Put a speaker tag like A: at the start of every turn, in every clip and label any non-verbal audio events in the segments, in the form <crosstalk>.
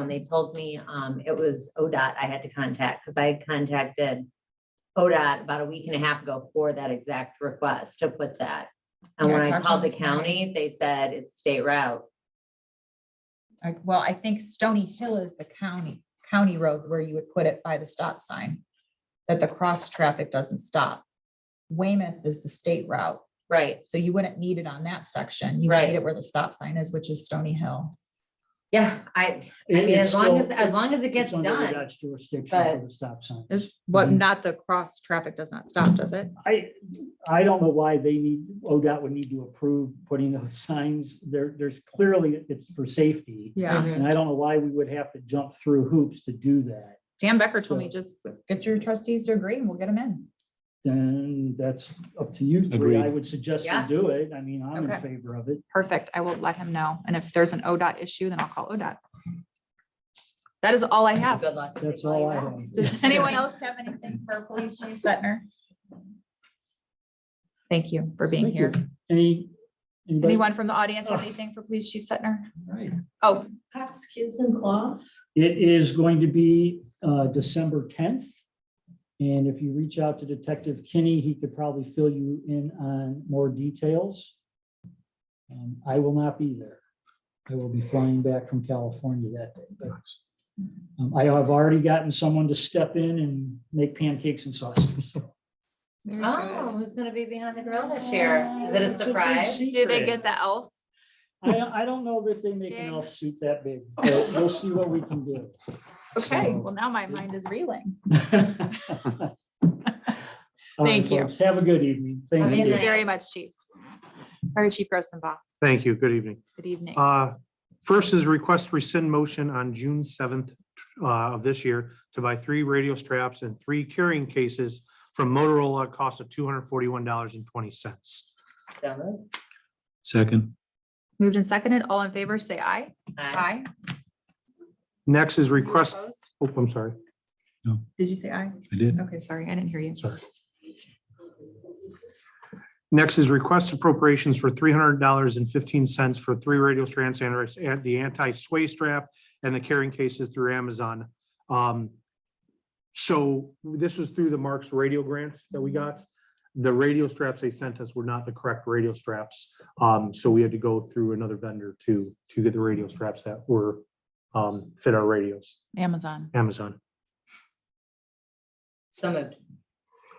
A: when they told me, um, it was ODOT I had to contact, because I contacted ODOT about a week and a half ago for that exact request to put that. And
B: Yeah, I
A: when I
B: talked to
A: called the
B: them this morning.
A: county, they said it's state route.
B: I well, I think Stony Hill is the county, county road where you would put it by the stop sign. That the cross traffic doesn't stop. Weymouth is the state route,
A: Right.
B: so you wouldn't need it on that section. You would
A: Right.
B: need it where the stop sign is, which is Stony Hill.
A: Yeah, I, I
C: It-
A: mean,
C: it's
A: as long as,
C: still-
A: as long as it gets
C: it's under the
A: done.
C: Dutch Jurisdiction
A: but- Mm-hmm.
C: for the stop sign.
B: Is,
C: but
B: not the cross traffic does not stop, does it?
C: I, I don't know why they need, ODOT would need to approve putting those <laughs> signs. There, there's clearly, it's for safety.
D: Yeah,
A: Mhm.
C: And I don't know why we would have to jump through hoops to do that.
D: Dan Becker told me just,
B: Get your trustees to agree and we'll get them in.
C: Then that's up to you three. I
E: Agreed.
C: would suggest you
A: Yeah.
C: do it. I mean, I'm in
D: Okay.
C: favor of it.
D: perfect, I will let him know, and if there's an ODOT issue, then I'll call ODOT. That is all I have.
A: Good luck.
C: That's all I have.
D: Does anyone else?
B: else have anything for Police Chief Setner?
D: Thank you for being
C: Thank you.
D: here.
C: Any? anybody-
D: Anyone from the audience have anything for Police Chief Setner?
C: Right.
D: Oh,
F: Cops, kids in class.
C: It is going to be uh, December 10th. And if you reach out to Detective Kinney, he could probably fill you in on more details. Um, I will not be there. I will be flying back from California that day. but, um, I have already gotten someone to step in and make pancakes and sausage.
A: Oh, who's gonna be behind the grill this year? Is it a
C: Oh, Ah, It's big
A: surprise?
D: do they
C: secret.
D: get the elf?
C: I, don't- I don't know that they make
D: Big.
C: an elf suit that big, but we'll see what we can do.
D: Okay, well, now my mind is reeling.
C: <laughs> Thank
D: Thank you.
C: Have a good evening.
A: Have a
C: Thank
D: Thank
C: you.
D: you very much, Chief. All right, Chief Grossenbach,
E: Thank you. Good evening.
D: good evening.
E: Uh, First is request rescind motion on June seventh uh, of this year to buy three radio straps and three carrying cases from Motorola at cost of two hundred forty-one dollars and twenty cents.
G: Second,
D: Moved and seconded, all in favor, say aye.
A: Hi.
E: Next is
D: You
E: request,
D: opposed?
E: oh, I'm sorry.
B: Did you say aye?
G: I did.
D: Okay, sorry, I didn't hear you.
E: Next is request appropriations for three hundred dollars and fifteen cents for three radio strands and and the anti-sway strap and the carrying cases through Amazon. Um, So this was through the Marks Radio grants that we got. The radio straps they sent us were not the correct radio straps. Um, So we had to go through another vendor to, to get the radio straps that were, um, fit our radios,
D: Amazon.
E: Amazon.
A: So moved.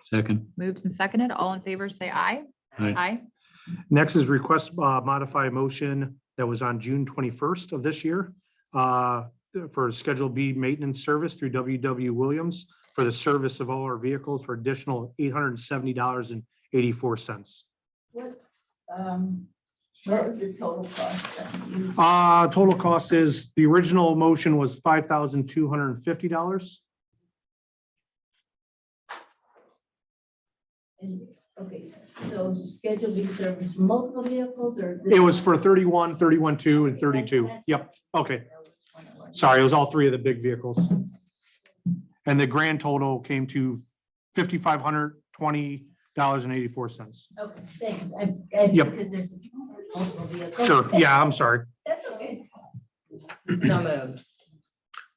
G: second,
D: Moved and seconded, all in favor, say aye.
G: Aye.
D: Aye.
E: Next is request uh, modify motion that was on June twenty-first of this year uh, for Schedule B maintenance service through W W Williams for the service of all our vehicles for additional eight hundred and seventy dollars and eighty-four cents.
F: Um, what was the total cost? that you-
E: Uh, total cost is, the original motion was five thousand two hundred and fifty dollars.
F: and- Okay, so schedule B service, multiple vehicles or?
E: It was for thirty-one, thirty-one, two, and thirty-two. Yep, okay. Sorry, it was all three of the big vehicles. And the grand total came to fifty-five hundred twenty dollars and eighty-four cents.
F: Okay, thanks. I, I,
E: Yep.
F: because there's multiple vehicles.
E: Sure, yeah, I'm sorry.
F: That's okay.
A: So moved.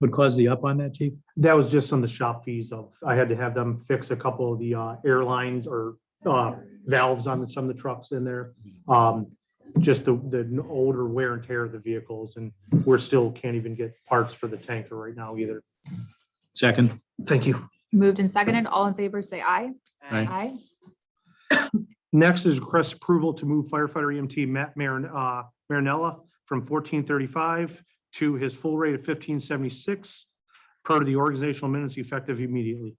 G: What caused the up on that, chief?
E: That was just on the shop fees of, I had to have them fix a couple of the uh, airlines or uh, valves on some of the trucks in there. Um, Just the, the older wear and tear of the vehicles and we're still can't even get parts for the tanker right now either.
G: Second,
E: Thank you.
D: Moved and seconded, all in favor, say aye.
G: Aye.
D: Aye.
E: Next is request approval to move firefighter EMT Matt Marin, uh, Marinella from fourteen thirty-five to his full rate of fifteen seventy-six per the organizational minutes effective immediately.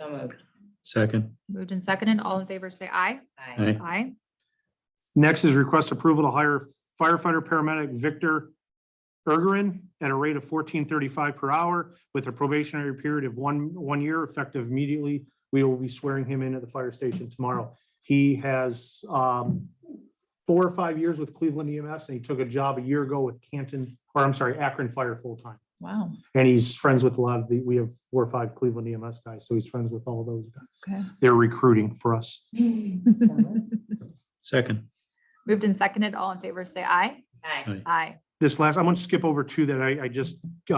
A: So moved.
G: second,
D: Moved and seconded, all in favor, say aye.
A: Hi.
G: aye,
D: Aye.
E: Next is request approval to hire firefighter paramedic Victor Ergerin at a rate of fourteen thirty-five per hour with a probationary period of one, one year effective immediately. We will be swearing him in at the fire station tomorrow. He has um, four or five years with Cleveland EMS and he took a job a year ago with Canton, or I'm sorry, Akron Fire full-time.
B: Wow.
E: And he's friends with a lot of the, we have four or five Cleveland EMS guys, so he's friends with all those guys.
D: Okay.
E: They're recruiting for us.
A: So moved.
G: second,
D: Moved and seconded, all in favor, say aye.
A: Hi.
G: aye.
D: Aye.
E: this last, I'm going to skip over two that I, I just